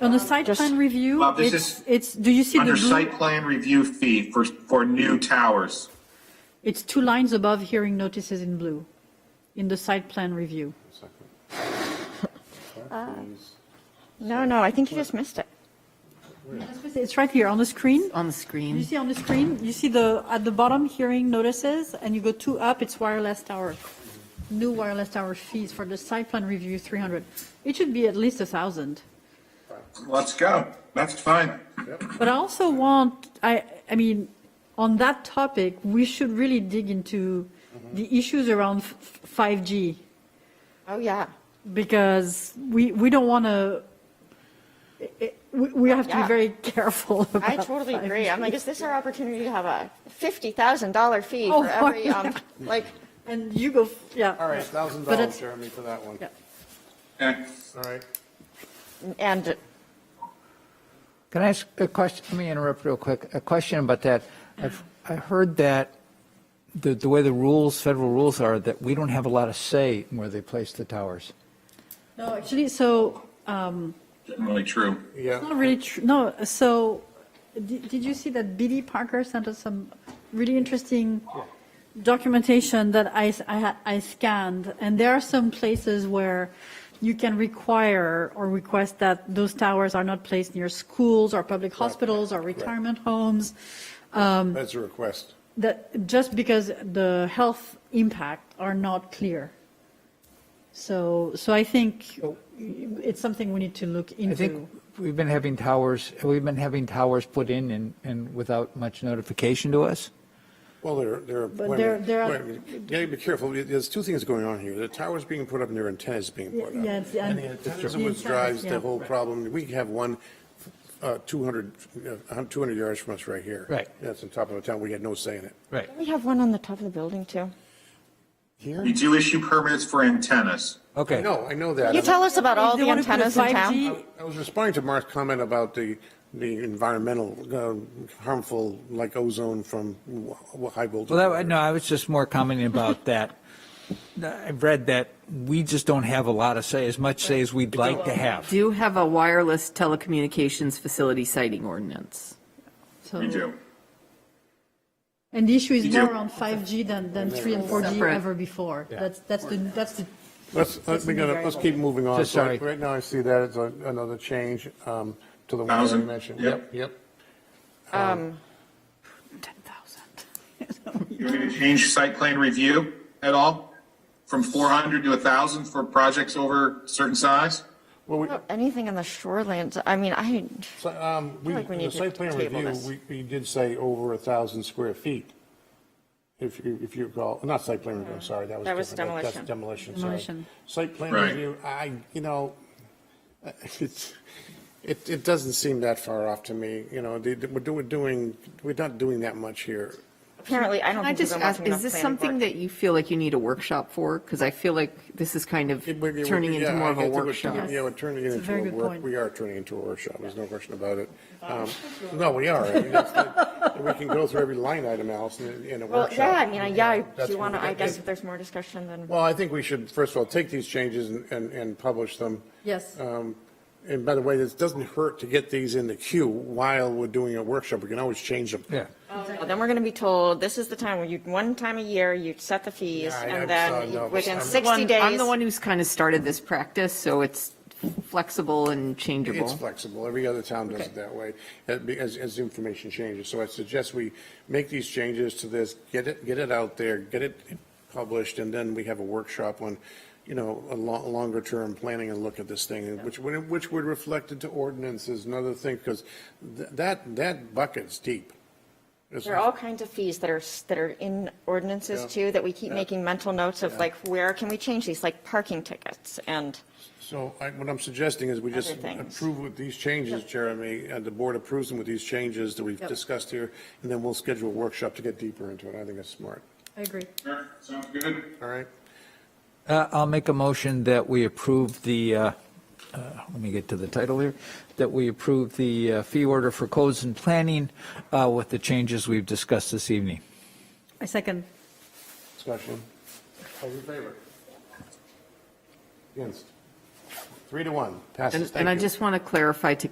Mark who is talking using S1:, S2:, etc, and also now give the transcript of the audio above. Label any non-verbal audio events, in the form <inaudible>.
S1: On the site
S2: Just-
S1: plan review,
S3: Bob, this
S1: it's,
S3: is
S1: it's, do you see the
S3: Under
S1: blue?
S3: site plan review fee for, for new towers.
S1: It's two lines above hearing notices in blue, in the site plan review.
S2: No, no, I think you just missed it.
S1: It's right here on the screen.
S4: on the
S1: You
S4: screen.
S1: see on the screen, you see the, at the bottom, hearing notices, and you go two up, it's wireless tower. New wireless tower fees for the site plan review, 300. It should be at least a 1,000.
S3: Let's go. That's fine.
S1: But I also want, I, I mean, on that topic, we should really dig into the issues around f- 5G.
S2: Oh, yeah.
S1: because we, we don't want to, we, we have to be
S2: Yeah.
S1: very careful about.
S2: I totally agree. I'm like, is this our opportunity to have a $50,000 fee
S1: Oh,
S2: for <laughs> every,
S1: fuck.
S2: um, like,
S1: And you go, f- yeah.
S5: All right, thousand
S1: But it's-
S5: dollars, Jeremy, for that one.
S1: Yeah.
S3: Okay.
S5: All right.
S2: and
S6: Can I ask a question? Let me interrupt real quick. A question about that. I've, I heard that the, the way the rules, federal rules are, that we don't have a lot of say in where they place the towers.
S1: No, actually, so, um,
S3: Generally true.
S1: it's
S5: Yeah,
S1: not really true, no, so, did, did you see that BD Parker sent us some really interesting documentation that I, s- I had, I scanned, and there are some places where you can require or request that those towers are not placed near schools or public hospitals or retirement homes.
S5: that's a request.
S1: that just because the health impact are not clear. So, so I think it's something we need to look
S6: I
S1: into.
S6: think we've been having towers, we've been having towers put in and, and without much notification to us.
S5: Well, there, there.
S1: But
S5: wait a
S1: there-
S5: minute,
S1: there are-
S5: wait a minute. You gotta be careful. There's two things going on here. The tower's being put up and their antenna's being
S1: Yeah,
S5: put up.
S1: yeah, it's-
S5: And the
S1: and-
S5: antenna's
S1: the
S5: what
S1: antennas,
S5: drives
S1: yeah.
S5: the whole problem. We have one, uh, 200, uh, 200 yards from us right here.
S6: Right.
S5: That's on top of the town. We had no say in it.
S6: Right.
S2: we have one on the top of the building, too.
S5: Here?
S3: We do issue permits for antennas.
S6: Okay.
S5: No, I know that.
S2: You tell us about all
S1: If they
S2: the
S1: wanna put a
S2: antennas in town.
S1: 5G
S5: I was responding to Mark's comment about the, the environmental um, harmful, like ozone from w- w- high voltage.
S6: Well, that, no, I was just more commenting about <laughs> that. I've read that we just don't have a lot of say, as much say as we'd like to have.
S4: Do have a wireless telecommunications facility siting ordinance.
S1: so-
S3: We do.
S1: And the issue is
S3: We do.
S1: more on 5G than, than 3 and 4G
S4: Separate.
S1: ever before. That's, that's the, that's the,
S5: Let's, let me, gonna- let's keep moving on.
S6: Just
S5: So
S6: sorry.
S5: Right now, I see that as a- another change um, to the one that I
S3: Thousand.
S5: mentioned.
S3: Yep.
S5: Yep.
S1: 10,000.
S3: <laughs> You want me to change site plan review at all? From 400 to 1,000 for projects over certain size?
S5: Well, we,
S2: Oh, Anything on the shorelands, I mean, I,
S5: so, um, we,
S2: like we need
S5: the
S2: to
S5: site plan
S2: table
S5: review,
S2: this.
S5: we, we did say over a thousand square feet. If you, if you recall, not site plan review, I'm sorry, that was
S2: That was
S5: different. That's
S2: demolition.
S5: Demolition,
S1: Demolition.
S5: sorry. Site plan
S3: Right.
S5: review, I, you know, it's, it, it doesn't seem that far off to me, you know, the- the- we're do- we're doing, we're not doing that much here.
S2: apparently, I don't
S4: Can I
S2: think we've
S4: just
S2: been
S4: ask,
S2: watching enough
S4: is this something
S2: planning board.
S4: that you feel like you need a workshop for? Because I feel like this is kind of
S5: It would- it would-
S4: turning into
S5: yeah,
S4: more
S5: I-
S4: of
S5: I
S4: a
S5: think we're-
S4: workshop.
S5: Yeah, we're turning it
S1: a very
S5: into a
S1: good
S5: work,
S1: point.
S5: we are turning into a workshop, there's no question about it. Um, No, we are, I mean, that's the- we can go through every line item, Allison, in- in a
S2: Well,
S5: workshop.
S2: yeah, I mean, I- yeah, I-
S5: That's
S2: do you want to,
S5: what we-
S2: I guess if there's more discussion, then.
S5: Well, I think we should, first of all, take these changes and, and- and publish them.
S1: Yes.
S5: Um, And by the way, this doesn't hurt to get these in the queue while we're doing a workshop, we can always change them.
S6: Yeah.
S2: Well, Oh, Then we're going to be told, this is the time where you, one time a year, you set the fees,
S5: Yeah, I- I'm
S2: and
S5: sorry,
S2: then
S5: no,
S2: you- within
S5: I'm-
S2: 60
S4: One- I'm
S2: days.
S4: the one who's kind of started this practice, so it's flexible and
S5: It's
S4: changeable.
S5: flexible, every other town does it that way, uh, be- as, as information changes. So I suggest we make these changes to this, get it, get it out there, get it published, and then we have a workshop on, you know, a lo- longer-term planning and look at this thing, and which, would- which would reflect into ordinances and other things, because that, that bucket's deep. It's-
S2: There are all kinds of fees that are, s- that are in ordinances
S5: Yeah.
S2: too, that we keep
S5: Yeah.
S2: making mental notes of like, where can we change these, like parking tickets and.
S5: So I, what I'm suggesting is we just
S2: Other things.
S5: approve with these changes, Jeremy, and the board approves them with these changes that we've discussed here, and then we'll schedule a workshop to get deeper into it. I think that's smart.
S1: I agree.
S3: Sure, sounds good.
S5: All right?
S6: Uh, I'll make a motion that we approve the, uh, uh, let me get to the title here, that we approve the uh, fee order for codes and planning uh, with the changes we've discussed this evening.
S1: I second.
S5: Discussion. All in favor? Against? Three to one. Passes.
S4: And-
S5: Thank
S4: And I
S5: you.
S4: just want to clarify to